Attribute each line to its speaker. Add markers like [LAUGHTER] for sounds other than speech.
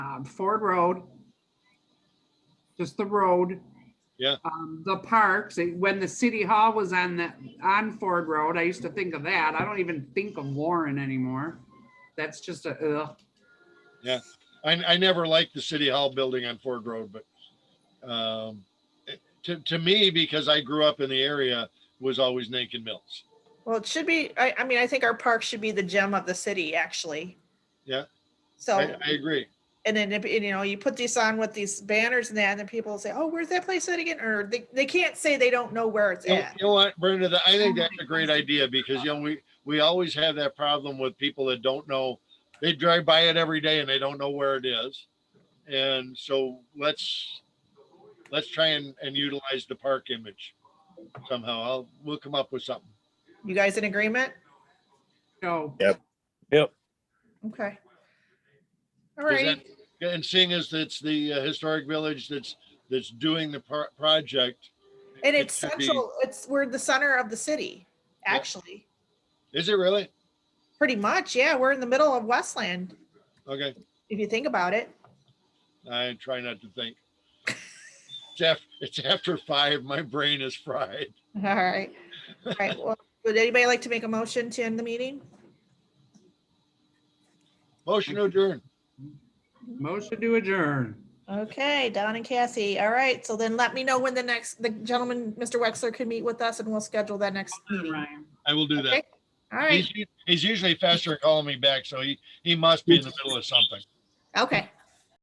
Speaker 1: um, Ford Road, just the road.
Speaker 2: Yeah.
Speaker 1: Um, the parks, eh, when the city hall was on the, on Ford Road, I used to think of that. I don't even think of Warren anymore. That's just a, ugh.
Speaker 2: I, I never liked the city hall building on Ford Road, but um, it- to, to me, because I grew up in the area, was always Nankin Mills.
Speaker 3: Well, it should be, I, I mean, I think our park should be the gem of the city, actually.
Speaker 2: Yeah. I,
Speaker 3: So,
Speaker 2: I agree.
Speaker 3: and then, if you know, you put these on with these banners and that, and then people say, oh, where's that place at again? Or they, they can't say they don't know where it's
Speaker 2: You know-
Speaker 3: at.
Speaker 2: You know what, Brenda, that- I think that's a great idea because, you know, we, we always have that problem with people that don't know. They drive by it every day and they don't know where it is. And so let's, let's try and, and utilize the park image somehow. I'll, we'll come up with something.
Speaker 3: You guys in agreement?
Speaker 1: no.
Speaker 3: Okay. All
Speaker 2: Does
Speaker 3: right,
Speaker 2: Yeah, And seeing as it's the uh, historic village that's, that's doing the pro- project,
Speaker 3: and
Speaker 2: it
Speaker 3: it's
Speaker 2: should be-
Speaker 3: central, it's, we're the center of the city,
Speaker 2: Yeah.
Speaker 3: actually.
Speaker 2: is it really?
Speaker 3: Pretty much, yeah, we're in the middle of Westland,
Speaker 2: Okay,
Speaker 3: if you think about it. [LAUGHS]
Speaker 2: I try not to think. It's after, it's after five, my brain is fried.
Speaker 3: All right. All right, well, would anybody like to make a motion to end the meeting?
Speaker 2: Motion to adjourn.
Speaker 1: Motion to adjourn.
Speaker 3: Okay, Don and Cassie. All right, so then let me know when the next, the gentleman, Mr. Wexler, can meet with us and we'll schedule that next meeting. All
Speaker 1: Ryan.
Speaker 2: I will do that.
Speaker 3: Okay. right,
Speaker 2: He's, u- he's usually faster at calling me back, so he, he must be in the middle of something.
Speaker 3: okay,